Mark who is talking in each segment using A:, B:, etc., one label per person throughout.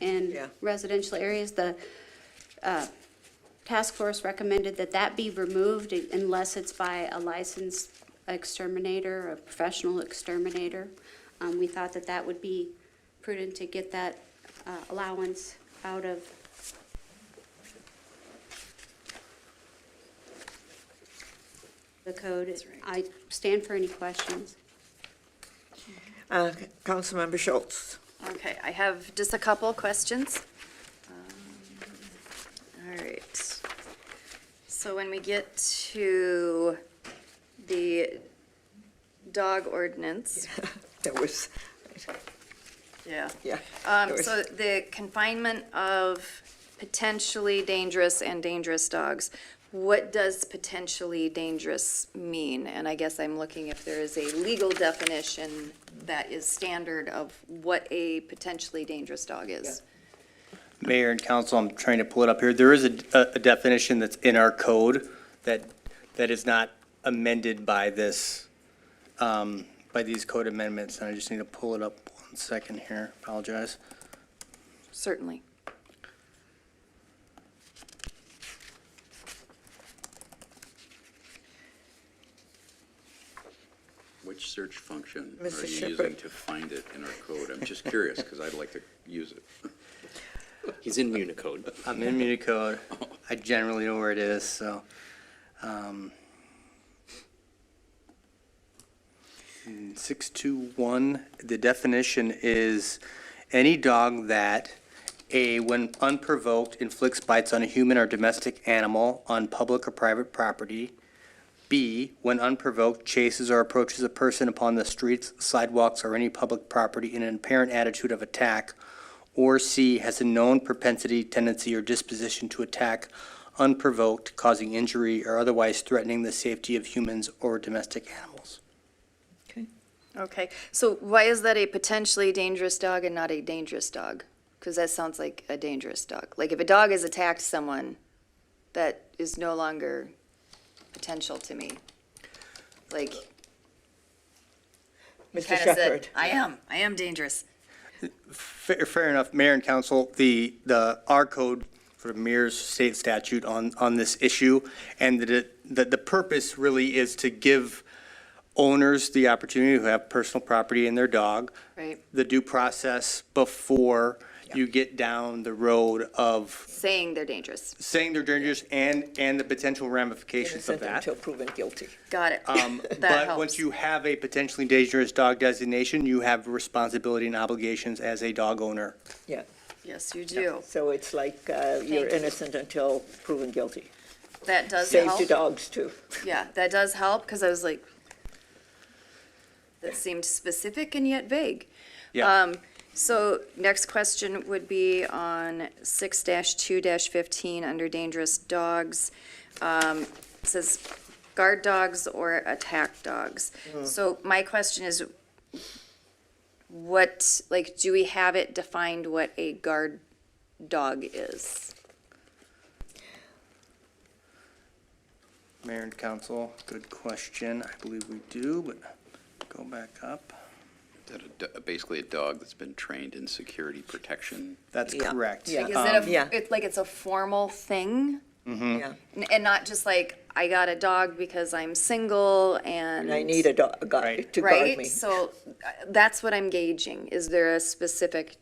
A: in
B: Yeah.
A: residential areas. The uh, task force recommended that that be removed unless it's by a licensed exterminator, a professional exterminator. Um, We thought that that would be prudent to get that uh, allowance out of the code. I stand for any questions.
B: Uh, Councilmember Schultz.
C: Okay, I have just a couple questions. Um, All right. So when we get to the dog ordinance,
B: That was,
C: yeah.
B: yeah.
C: Um,
B: there was-
C: so the confinement of potentially dangerous and dangerous dogs, what does potentially dangerous mean? And I guess I'm looking if there is a legal definition that is standard of what a potentially dangerous dog is.
D: Mayor and council, I'm trying to pull it up here. There is a, a definition that's in our code that, that is not amended by this, um, by these code amendments, and I just need to pull it up one second here. Apologize.
C: Certainly.
E: Which search function are
B: Mr.
E: you using
B: Shepherd.
E: to find it in our code? I'm just curious, because I'd like to use it.
F: He's in Municode.
D: I'm in Municode. I generally know where it is, so, um, six two one, the definition is any dog that, A, when unprovoked inflicts bites on a human or domestic animal on public or private property. B, when unprovoked chases or approaches a person upon the streets, sidewalks, or any public property in an apparent attitude of attack, or C, has a known propensity, tendency, or disposition to attack unprovoked, causing injury or otherwise threatening the safety of humans or domestic animals.
C: Okay, so why is that a potentially dangerous dog and not a dangerous dog? Because that sounds like a dangerous dog. Like if a dog has attacked someone, that is no longer potential to me. Like,
B: Mr.
C: kind of
B: Shepherd.
C: said, I am, I am dangerous.
D: Fair, fair enough, Mayor and Council, the, the, our code sort of mirrors state statute on, on this issue, and that it, that the purpose really is to give owners the opportunity who have personal property in their dog,
C: Right.
D: the due process before you get down the road of
C: Saying they're dangerous.
D: saying they're dangerous and, and the potential ramifications of
B: Innocent
D: that.
B: until proven guilty.
C: Got it.
D: Um,
C: That
D: But once
C: helps.
D: you have a potentially dangerous dog designation, you have responsibility and obligations as a dog owner.
B: Yeah.
C: Yes, you do.
B: So it's like uh, you're
C: Thank you.
B: innocent until proven guilty.
C: That does
B: Save to
C: help.
B: dogs, too.
C: Yeah, that does help, because I was like, that seemed specific and yet vague.
D: Yeah.
C: Um, So next question would be on six two fifteen, under dangerous dogs. Um, it Says guard dogs or attack dogs.
B: Hmm.
C: So my question is, what, like, do we have it defined what a guard dog is?
D: Mayor and council, good question. I believe we do, but go back up.
E: That a do- Basically, a dog that's been trained in security protection.
D: That's
B: Yeah.
D: correct. Um,
B: Yeah.
C: Like, is it
B: Um, yeah.
C: a, it's like it's a formal thing?
B: Yeah.
C: N- And not just like, I got a dog because I'm single and.
B: And I need a dog
D: Right.
B: to guard
C: Right?
B: me.
C: So uh, that's what I'm gauging. Is there a specific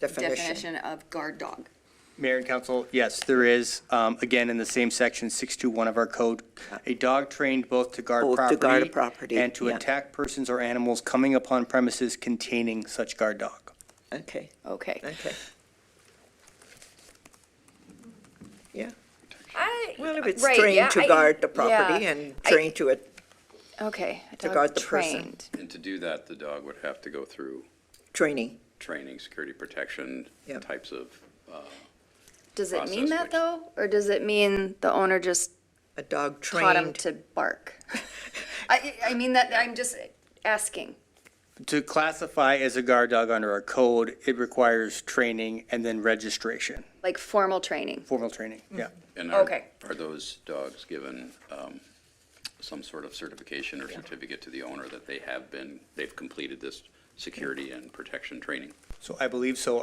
B: Definition.
C: definition of guard dog?
D: Mayor and council, yes, there is, um, again, in the same section, 621 of our code, a dog trained both to guard
B: Both
D: property.
B: to guard a property,
D: And to
B: yeah.
D: attack persons or animals coming upon premises containing such guard dog.
B: Okay,
C: Okay.
B: okay. Yeah.
C: I-
B: Well, if it's
C: Uh, right, yeah,
B: trained to
C: I-
B: guard the
C: yeah.
B: property and
C: I-
B: trained to it,
C: Okay. a
B: to
C: dog
B: guard the person.
C: trained.
E: And to do that, the dog would have to go through
B: training.
E: training, security protection
B: Yep.
E: types of, uh,
C: Does it mean
E: Process
C: that
E: which-
C: though? Or does it mean the owner just
B: A dog
C: taught him
B: trained,
C: to bark? I, I mean that, I'm just asking.
D: To classify as a guard dog under our code, it requires training and then registration,
C: Like formal training.
D: formal training, yeah.
E: and are,
C: Okay.
E: are those dogs given um, some sort of certification or certificate to the owner that they have been, they've completed this security and protection training?
D: So I believe so.